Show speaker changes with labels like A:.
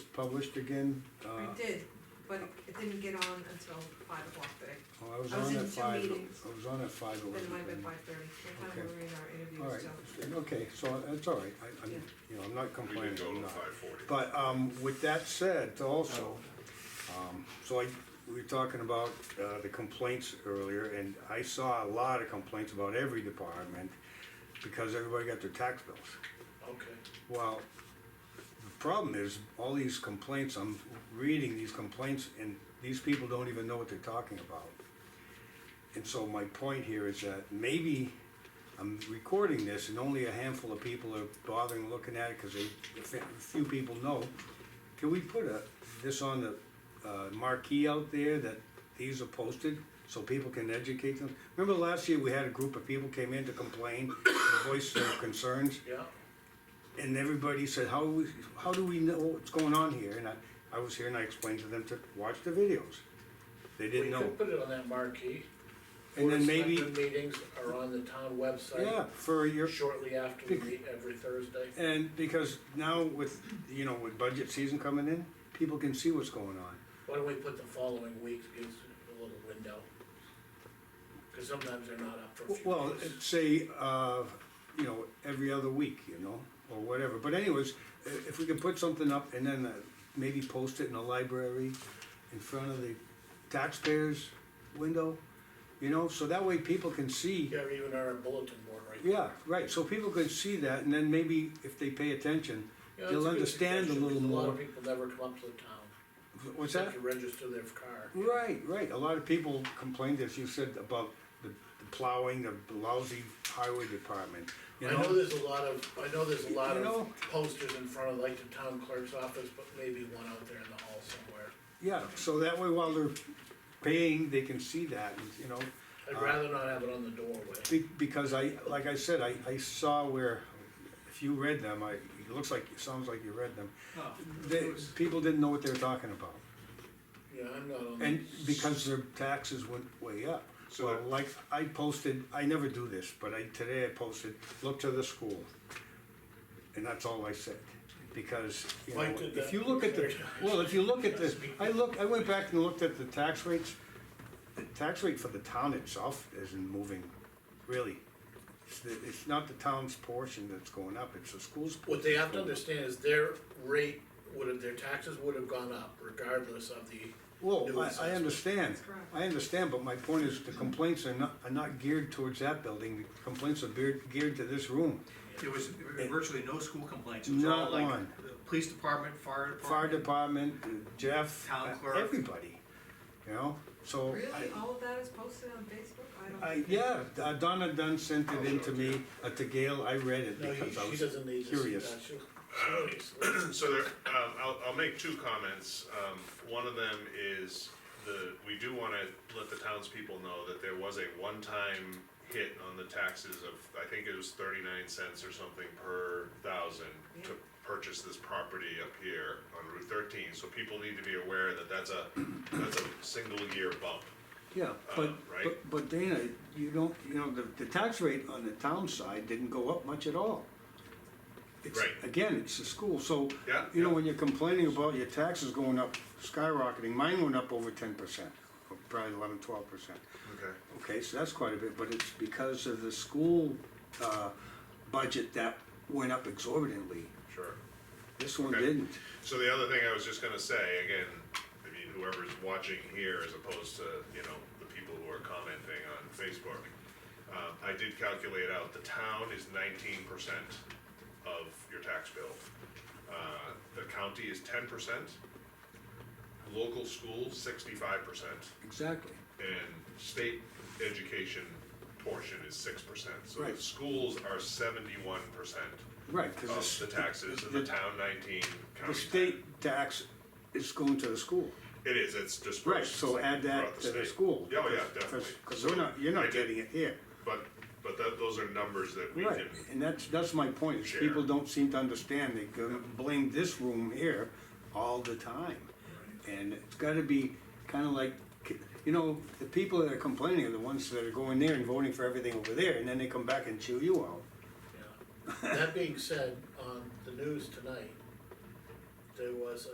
A: published again? Uh,
B: I did, but it didn't get on until five o'clock today,
A: oh, I was
B: I was
A: on
B: in
A: at
B: two
A: five,
B: meetings.
A: I was on at five over
B: then it might have been
A: there.
B: five thirty, what time
A: Okay.
B: were we in our
A: All right,
B: interviews till?
A: okay, so that's all right, I, I'm,
B: Yeah.
A: you know, I'm not
C: We
A: complaining,
C: didn't go
A: I'm
C: to
A: not.
C: five forty.
A: But, um, with that said, also, um, so I, we were talking about, uh, the complaints earlier, and I saw a lot of complaints about every department, because everybody got their tax bills.
C: Okay.
A: Well, the problem is, all these complaints, I'm reading these complaints, and these people don't even know what they're talking about. And so my point here is that maybe I'm recording this and only a handful of people are bothering looking at it because they, a few people know. Can we put a, this on the uh, marquee out there that these are posted so people can educate them? Remember last year, we had a group of people came in to complain, and voice their concerns?
C: Yeah.
A: and everybody said, how, we- how do we know what's going on here? And I, I was here and I explained to them to watch the videos. They
D: We
A: didn't know.
D: could put it on that marquee.
A: And
D: Board
A: then
D: of
A: maybe,
D: Selectmen Meetings are on the town
A: yeah,
D: website
A: for your,
D: shortly after we meet every Thursday.
A: and because now with, you know, with budget season coming in, people can see what's going on.
D: Why don't we put the following week, gives a little window? Cause sometimes they're not up for a few
A: Well,
D: days.
A: say, uh, you know, every other week, you know, or whatever, but anyways, i- if we can put something up and then uh, maybe post it in the library in front of the taxpayers' window, you know, so that way people can see.
D: Yeah, or even our bulletin board right
A: Yeah, right, so people can see that, and then maybe if they pay attention,
D: Yeah,
A: They'll
D: that's a good
A: understand a
D: suggestion,
A: little
D: 'cause A lot
A: more.
D: of people never come up to the town.
A: what's that?
D: Have to register their car.
A: Right, right, a lot of people complained, as you said, about the the plowing, the lousy highway department, you
D: I know
A: know?
D: there's a lot of, I know there's a lot
A: You
D: of
A: know-
D: posters in front of like the town clerk's office, but maybe one out there in the hall somewhere.
A: Yeah, so that way while they're paying, they can see that, and, you know?
D: I'd
A: Uh,
D: rather not have it on the doorway.
A: Be- Because I, like I said, I, I saw where, if you read them, I, it looks like, it sounds like you read them.
D: Oh,
A: They, people didn't know what they were talking about,
D: Yeah, I'm not on.
A: and because their taxes went way up.
C: So
A: Well,
C: that-
A: like, I posted, I never do this, but I, today I posted, look to the school. And that's all I said, because, you know,
D: Mike did
A: if
D: that.
A: you look at the, well, if you look at the, I look, I went back and looked at the tax rates. The tax rate for the town itself isn't moving, really. It's, the- it's not the town's portion that's going up, it's the school's.
D: What they have to
A: portion.
D: understand is their rate would have, their taxes would have gone up regardless of the. new
A: Well, I, I
D: assessment.
A: understand,
B: That's correct.
A: I understand, but my point is the complaints are not, are not geared towards that building, the complaints are geared, geared to this room.
E: There was virtually no school complaints, it was
A: Not
E: all like,
A: one.
E: the police department, fire
A: Fire
E: department,
A: department, Jeff,
E: Town clerk.
A: everybody, you know, so. I-
B: Really, all of that is posted on Facebook? I don't.
A: I,
B: think it-
A: yeah, uh, Donna Dunn sent it in to me, uh, to Gail, I read it
D: No,
A: because I
D: he- she doesn't need
A: was
D: to see
A: curious.
D: that, she'll, seriously.
C: So there, um, I'll, I'll make two comments. Um, one of them is the, we do wanna let the townspeople know that there was a one-time hit on the taxes of, I think it was thirty-nine cents or something per thousand to purchase this property up here on Route thirteen, so people need to be aware that that's a, that's a single-year bump.
A: Yeah, but,
C: Uh, right.
A: but, but Dana, you don't, you know, the, the tax rate on the town side didn't go up much at all. It's-
C: Right.
A: Again, it's the school, so,
C: Yeah,
A: you know,
C: yeah.
A: when you're complaining about your taxes going up, skyrocketing, mine went up over ten percent, probably eleven, twelve percent.
C: Okay.
A: Okay, so that's quite a bit, but it's because of the school, uh, budget that went up exorbitantly.
C: Sure.
A: This one
C: Okay.
A: didn't.
C: So the other thing I was just gonna say, again, I mean, whoever's watching here as opposed to, you know, the people who are commenting on Facebook. Um, I did calculate out, the town is nineteen percent of your tax bill. Uh, the county is ten percent, local school sixty-five percent,
A: Exactly.
C: and state education portion is six percent. So
A: Right.
C: the schools are seventy-one percent
A: Right, because
C: of Oh, the taxes, and the
A: the-
C: town nineteen,
A: The
C: county 10.
A: state tax is going to the school.
C: It is, it's dispersed.
A: Right, so add that
C: throughout
A: to the
C: state.
A: school.
C: Yeah, oh, yeah, definitely.
A: Because we're not, you're
C: I
A: not
C: did-
A: getting it here.
C: But, but that, those are numbers that we
A: Right,
C: can,
A: and that's, that's my point, is
C: Share.
A: people don't seem to understand, they go blame this room here all the time. And it's gotta be kinda like, you know, the people that are complaining are the ones that are going there and voting for everything over there, and then they come back and chew you out.
D: yeah. That being said, on the news tonight, there was